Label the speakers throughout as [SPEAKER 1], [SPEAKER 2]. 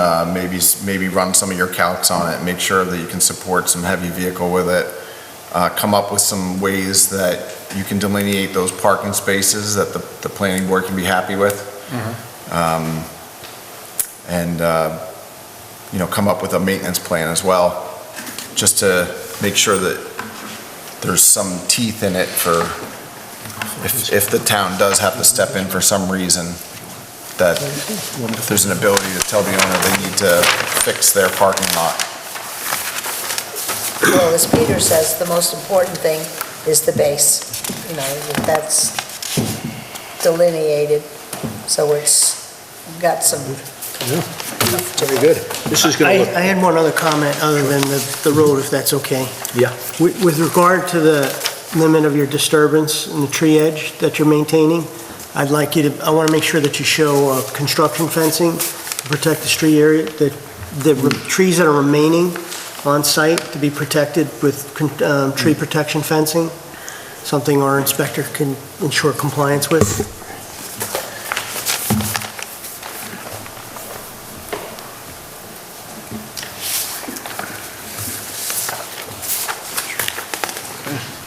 [SPEAKER 1] uh, maybe, s- maybe run some of your calcs on it, make sure that you can support some heavy vehicle with it, uh, come up with some ways that you can delineate those parking spaces that the, the planning board can be happy with. Um, And, uh, you know, come up with a maintenance plan as well, just to make sure that there's some teeth in it for, if, if the town does have to step in for some reason, that if there's an ability to tell the owner they need to fix their parking lot.
[SPEAKER 2] Well, as Peter says, the most important thing is the base, you know, that that's delineated, so it's got some.
[SPEAKER 3] Very good. This is
[SPEAKER 4] I,
[SPEAKER 3] going to
[SPEAKER 4] I
[SPEAKER 3] look,
[SPEAKER 4] had one other comment other than the, the road, if that's okay.
[SPEAKER 3] yeah,
[SPEAKER 4] With with regard to the limit of your disturbance and the tree edge that you're maintaining, I'd like you to, I want to make sure that you show uh, construction fencing to protect the tree area, that the re- trees that are remaining on site to be protected with con- um, tree
[SPEAKER 3] Mm.
[SPEAKER 4] protection fencing, something our inspector can ensure compliance with.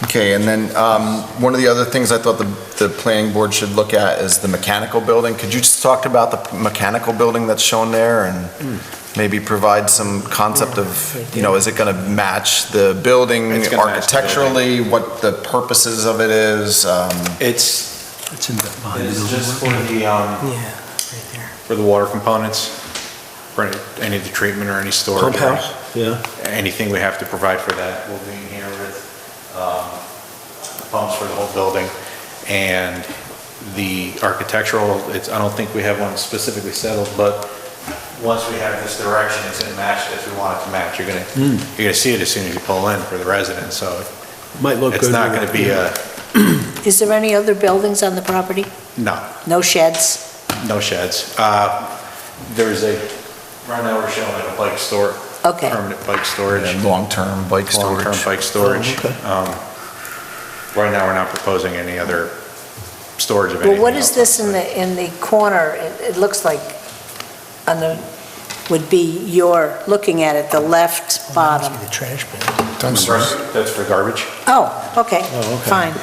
[SPEAKER 1] Okay, and then, um, one of the other things I thought the, the planning board should look at is the mechanical building. Could you just talk about the mechanical building that's shown there and maybe provide some concept of, you know, is it gonna match the building
[SPEAKER 5] It's gonna match the
[SPEAKER 1] architecturally? What the purposes of it is, um,
[SPEAKER 5] It's,
[SPEAKER 3] it's in that behind the
[SPEAKER 6] It's
[SPEAKER 3] building.
[SPEAKER 6] just for the, um,
[SPEAKER 4] Yeah, right there.
[SPEAKER 5] for the water components, for any- any of the treatment or any
[SPEAKER 3] Pump
[SPEAKER 5] storage. or
[SPEAKER 3] house, yeah.
[SPEAKER 5] Anything we have to provide for that, we'll be in here with um, pumps for the whole building. And the architectural, it's, I don't think we have one specifically settled, but once we have this direction, it's gonna match as we want it to match. You're gonna,
[SPEAKER 3] Hmm.
[SPEAKER 5] you're gonna see it as soon as you pull in for the residents, so
[SPEAKER 3] Might look good.
[SPEAKER 5] it's not
[SPEAKER 3] with-
[SPEAKER 5] gonna be a,
[SPEAKER 2] Is there any other buildings on the property?
[SPEAKER 5] no.
[SPEAKER 2] No sheds?
[SPEAKER 5] No sheds. Uh, There's a, right now we're showing a bike store.
[SPEAKER 2] Okay.
[SPEAKER 5] Permanent bike storage.
[SPEAKER 1] and long-term bike storage?
[SPEAKER 5] Long-term bike storage.
[SPEAKER 3] Oh, okay.
[SPEAKER 5] Um, Right now, we're not proposing any other storage of anything.
[SPEAKER 2] Well, what is
[SPEAKER 5] else.
[SPEAKER 2] this in the, in the corner? It, it looks like on the, would be your, looking at it, the left bottom.
[SPEAKER 4] The trash bin.
[SPEAKER 5] That's for garbage?
[SPEAKER 2] Oh, okay,
[SPEAKER 3] Oh, okay.
[SPEAKER 2] fine.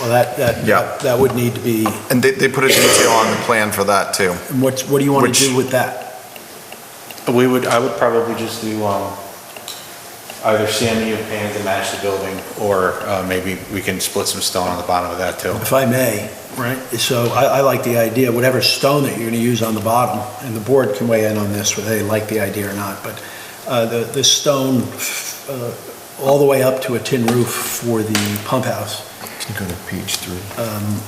[SPEAKER 3] Well, that,
[SPEAKER 1] Yeah.
[SPEAKER 3] that, that would need to be,
[SPEAKER 1] And they, they put a detail on the plan for that too.
[SPEAKER 3] and what's, what do you want
[SPEAKER 1] Which-
[SPEAKER 3] to do with that?
[SPEAKER 5] We would, I would probably just do um, either CMU paint to match the building, or uh, maybe we can split some stone on the bottom of that, too.
[SPEAKER 3] If I may.
[SPEAKER 5] Right.
[SPEAKER 3] So I, I like the idea, whatever stone that you're going to use on the bottom, and the board can weigh in on this, whether they like the idea or not, but uh, the, the stone, uh, all the way up to a tin roof for the pump house,
[SPEAKER 1] Can go to page three.
[SPEAKER 3] um,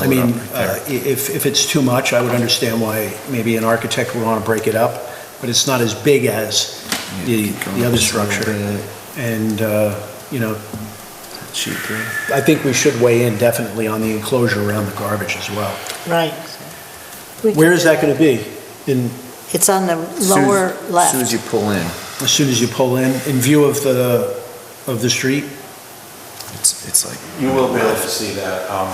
[SPEAKER 3] I mean, uh, i- if, if it's too much, I would understand why maybe an architect would want to break it up, but it's not as big as the, the other structure. And, uh, you know, I think we should weigh in definitely on the enclosure around the garbage as well.
[SPEAKER 2] Right.
[SPEAKER 3] Where is that going to be? In,
[SPEAKER 2] It's on the lower left.
[SPEAKER 1] Soon as you pull in.
[SPEAKER 3] as soon as you pull in, in view of the, of the street?
[SPEAKER 1] It's, it's like.
[SPEAKER 5] You will be able to see that, um,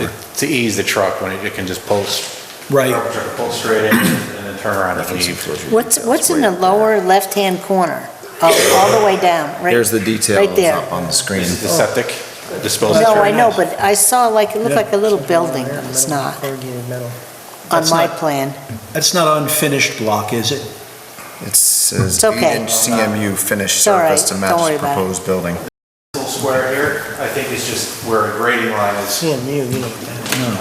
[SPEAKER 5] it- to ease the truck when it it can just pull, s-
[SPEAKER 3] Right,
[SPEAKER 5] truck can pull straight in and then turn around and leave.
[SPEAKER 2] What's, what's in the lower left-hand corner? Oh, all the way down, right?
[SPEAKER 1] There's the details
[SPEAKER 2] Right there.
[SPEAKER 1] up on the screen.
[SPEAKER 5] Is it The septic disposal.
[SPEAKER 2] No, I know, but I saw like, it looked
[SPEAKER 3] Yeah.
[SPEAKER 2] like a little building, but it's not,
[SPEAKER 4] Corrugated metal.
[SPEAKER 2] on
[SPEAKER 3] That's
[SPEAKER 2] my
[SPEAKER 3] not-
[SPEAKER 2] plan.
[SPEAKER 3] that's not unfinished block, is it?
[SPEAKER 1] It says
[SPEAKER 2] It's okay.
[SPEAKER 1] eight-inch CMU finished
[SPEAKER 2] It's all right.
[SPEAKER 1] surface to
[SPEAKER 2] Don't worry
[SPEAKER 1] match
[SPEAKER 2] about it.
[SPEAKER 1] proposed building.
[SPEAKER 5] Little square here, I think is just where a grading line is.
[SPEAKER 4] CMU, you know,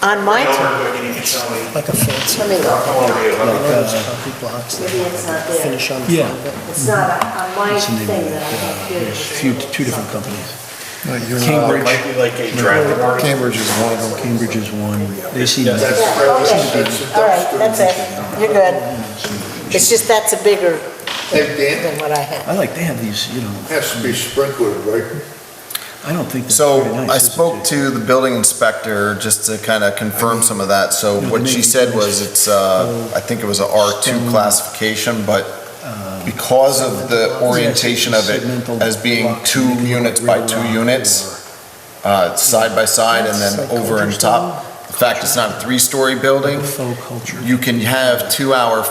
[SPEAKER 2] On my,
[SPEAKER 5] Over quick and you can tell me.
[SPEAKER 4] like a fence.
[SPEAKER 2] let me look.
[SPEAKER 5] Come over here,
[SPEAKER 3] Uh,
[SPEAKER 5] let me-
[SPEAKER 4] One of those concrete blocks that
[SPEAKER 2] Maybe it's not there.
[SPEAKER 4] finish on the
[SPEAKER 3] Yeah.
[SPEAKER 4] front of it.
[SPEAKER 2] It's not on my
[SPEAKER 3] It's in the
[SPEAKER 2] thing
[SPEAKER 3] name of
[SPEAKER 2] that I
[SPEAKER 3] that,
[SPEAKER 2] have
[SPEAKER 3] uh,
[SPEAKER 2] here.
[SPEAKER 3] there's a few, two different companies.
[SPEAKER 5] It might be like a draft warning.
[SPEAKER 3] uh, Cambridge is one of them. Cambridge is one. They seem.
[SPEAKER 2] Yeah, okay, all right, that's it, you're good. It's just that's a bigger
[SPEAKER 7] Hey, Dan,
[SPEAKER 2] than what I had.
[SPEAKER 3] I like, they have these, you know, um,
[SPEAKER 7] has to be sprinkled, right?
[SPEAKER 3] I don't think that's
[SPEAKER 1] So
[SPEAKER 3] very nice.
[SPEAKER 1] I
[SPEAKER 3] is it,
[SPEAKER 1] spoke
[SPEAKER 3] Jay?
[SPEAKER 1] to the building inspector just to kind of confirm some of that. So
[SPEAKER 3] No,
[SPEAKER 1] what
[SPEAKER 3] they
[SPEAKER 1] she
[SPEAKER 3] make
[SPEAKER 1] said
[SPEAKER 3] these
[SPEAKER 1] was it's, uh, I think it was a R2
[SPEAKER 3] stone- uh,
[SPEAKER 1] classification, but because of the orientation of it
[SPEAKER 3] Segmental
[SPEAKER 1] as being
[SPEAKER 3] block,
[SPEAKER 1] two
[SPEAKER 3] maybe
[SPEAKER 1] units
[SPEAKER 3] right
[SPEAKER 1] by two
[SPEAKER 3] around
[SPEAKER 1] units, uh, side by side and then over and top. The fact it's not a three-story building,
[SPEAKER 3] Faux culture.
[SPEAKER 1] you can have two-hour